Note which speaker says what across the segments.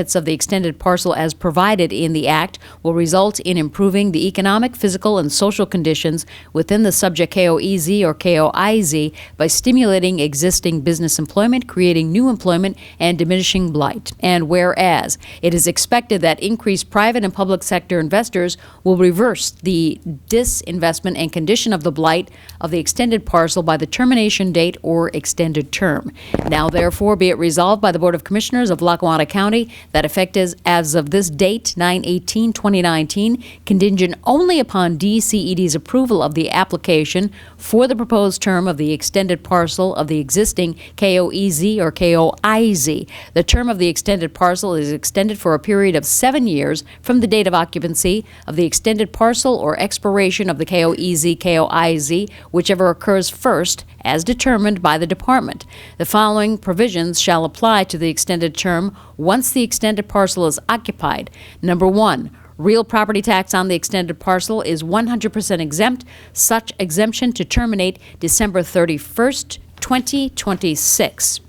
Speaker 1: benefits of the extended parcel as provided in the act will result in improving the economic, physical, and social conditions within the subject KOEZ or KOIZ by stimulating existing business employment, creating new employment, and diminishing blight. And whereas it is expected that increased private and public sector investors will reverse the disinvestment and condition of the blight of the extended parcel by the termination date or extended term. Now therefore be it resolved by the Board of Commissioners of Lackawanna County that effective as of this date, 9/18/2019, contingent only upon DCED's approval of the application for the proposed term of the extended parcel of the existing KOEZ or KOIZ. The term of the extended parcel is extended for a period of seven years from the date of occupancy of the extended parcel or expiration of the E KOEZ, KOIZ, whichever occurs first, as determined by the department. The following provisions shall apply to the extended term once the extended parcel is occupied. Number one, Real property tax on the extended parcel is 100% exempt, such exemption to terminate December 31st, 2026.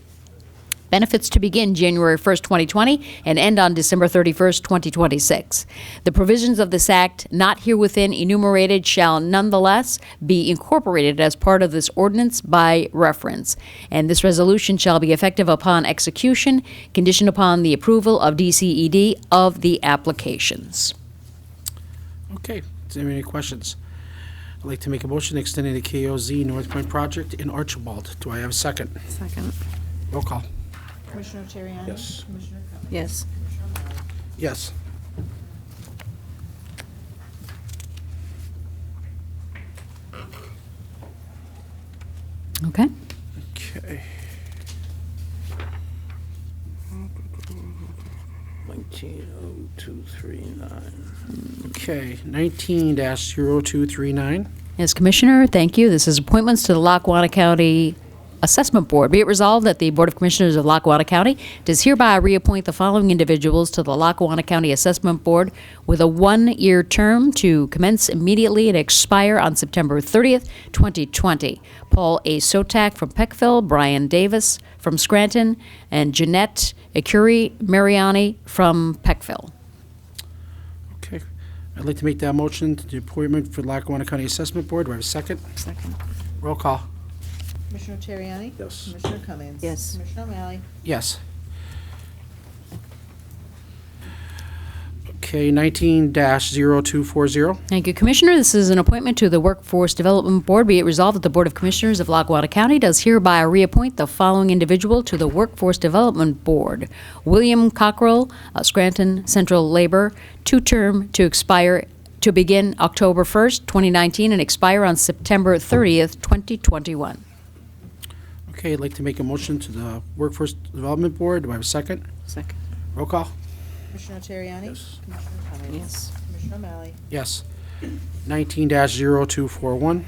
Speaker 1: Benefits to begin January 1st, 2020, and end on December 31st, 2026. The provisions of this act not herewithin enumerated shall nonetheless be incorporated as part of this ordinance by reference, and this resolution shall be effective upon execution, conditioned upon the approval of DCED of the applications.
Speaker 2: Okay, does anybody have any questions? I'd like to make a motion extending the KOZ North Point project in Archibald. Do I have a second?
Speaker 3: Second.
Speaker 2: Roll call.
Speaker 4: Commissioner Terriani?
Speaker 2: Yes.
Speaker 4: Commissioner Cummings?
Speaker 3: Yes.
Speaker 2: Yes.
Speaker 1: Okay?
Speaker 2: Okay. 190239. Okay, 19-0239.
Speaker 1: Yes, Commissioner, thank you. This is appointments to the Lackawanna County Assessment Board. Be it resolved that the Board of Commissioners of Lackawanna County does hereby reappoint the following individuals to the Lackawanna County Assessment Board with a one-year term to commence immediately and expire on September 30th, 2020. Paul A. Sotak from Peckville, Brian Davis from Scranton, and Jeanette Ecuri Mariani from Peckville.
Speaker 2: Okay, I'd like to make that motion to the appointment for Lackawanna County Assessment Board. Do I have a second?
Speaker 3: Second.
Speaker 2: Roll call.
Speaker 4: Commissioner Terriani?
Speaker 2: Yes.
Speaker 4: Commissioner Cummings?
Speaker 3: Yes.
Speaker 4: Commissioner O'Malley?
Speaker 2: Yes. Okay, 19-0240.
Speaker 1: Thank you, Commissioner. This is an appointment to the Workforce Development Board. Be it resolved that the Board of Commissioners of Lackawanna County does hereby reappoint the following individual to the Workforce Development Board. William Cockrell, uh, Scranton Central Labor, two-term to expire, to begin October 1st, 2019, and expire on September 30th, 2021.
Speaker 2: Okay, I'd like to make a motion to the Workforce Development Board. Do I have a second?
Speaker 3: Second.
Speaker 2: Roll call?
Speaker 4: Commissioner Terriani? Yes. Commissioner Cummings?
Speaker 3: Yes.
Speaker 4: Commissioner O'Malley?
Speaker 2: Yes. 19-0241.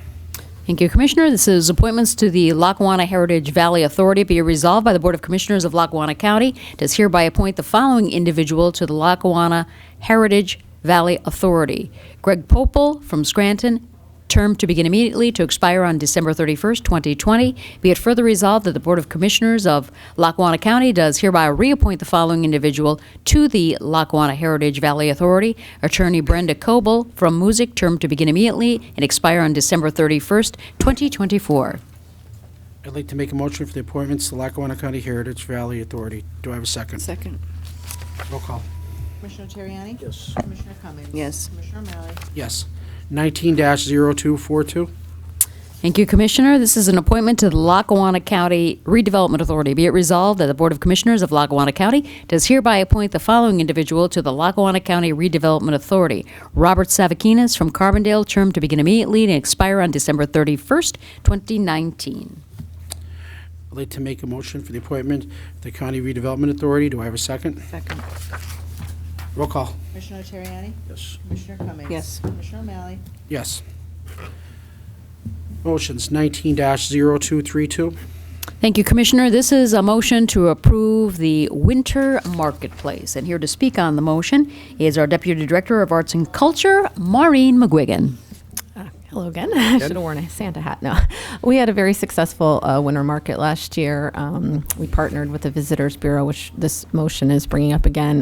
Speaker 1: Thank you, Commissioner. This is appointments to the Lackawanna Heritage Valley Authority. Be resolved by the Board of Commissioners of Lackawanna County. Does hereby appoint the following individual to the Lackawanna Heritage Valley Authority. Greg Popel from Scranton, term to begin immediately to expire on December 31st, 2020. Be it further resolved that the Board of Commissioners of Lackawanna County does hereby reappoint the following individual to the Lackawanna Heritage Valley Authority, Attorney Brenda Coble from Music, term to begin immediately and expire on December 31st, 2024.
Speaker 2: I'd like to make a motion for the appointments to Lackawanna County Heritage Valley Authority. Do I have a second?
Speaker 3: Second.
Speaker 2: Roll call?
Speaker 4: Commissioner Terriani? Yes. Commissioner Cummings?
Speaker 3: Yes.
Speaker 4: Commissioner O'Malley?
Speaker 2: Yes. 19-0242.
Speaker 1: Thank you, Commissioner. This is an appointment to the Lackawanna County Redevelopment Authority. Be it resolved that the Board of Commissioners of Lackawanna County does hereby appoint the following individual to the Lackawanna County Redevelopment Authority. Robert Savakinas from Carbondale, term to begin immediately and expire on December 31st, 2019.
Speaker 2: I'd like to make a motion for the appointment of the County Redevelopment Authority. Do I have a second?
Speaker 3: Second.
Speaker 2: Roll call?
Speaker 4: Commissioner Terriani?
Speaker 2: Yes.
Speaker 4: Commissioner Cummings?
Speaker 3: Yes.
Speaker 4: Commissioner O'Malley?
Speaker 2: Yes. Motions 19-0232.
Speaker 1: Thank you, Commissioner. This is a motion to approve the Winter Marketplace. And here to speak on the motion is our Deputy Director of Arts and Culture, Maureen McGuigan.
Speaker 5: Hello again. I should have worn a Santa hat. No, we had a very successful uh, winter market last year. Um, we partnered with the Visitors Bureau, which this motion is bringing up again,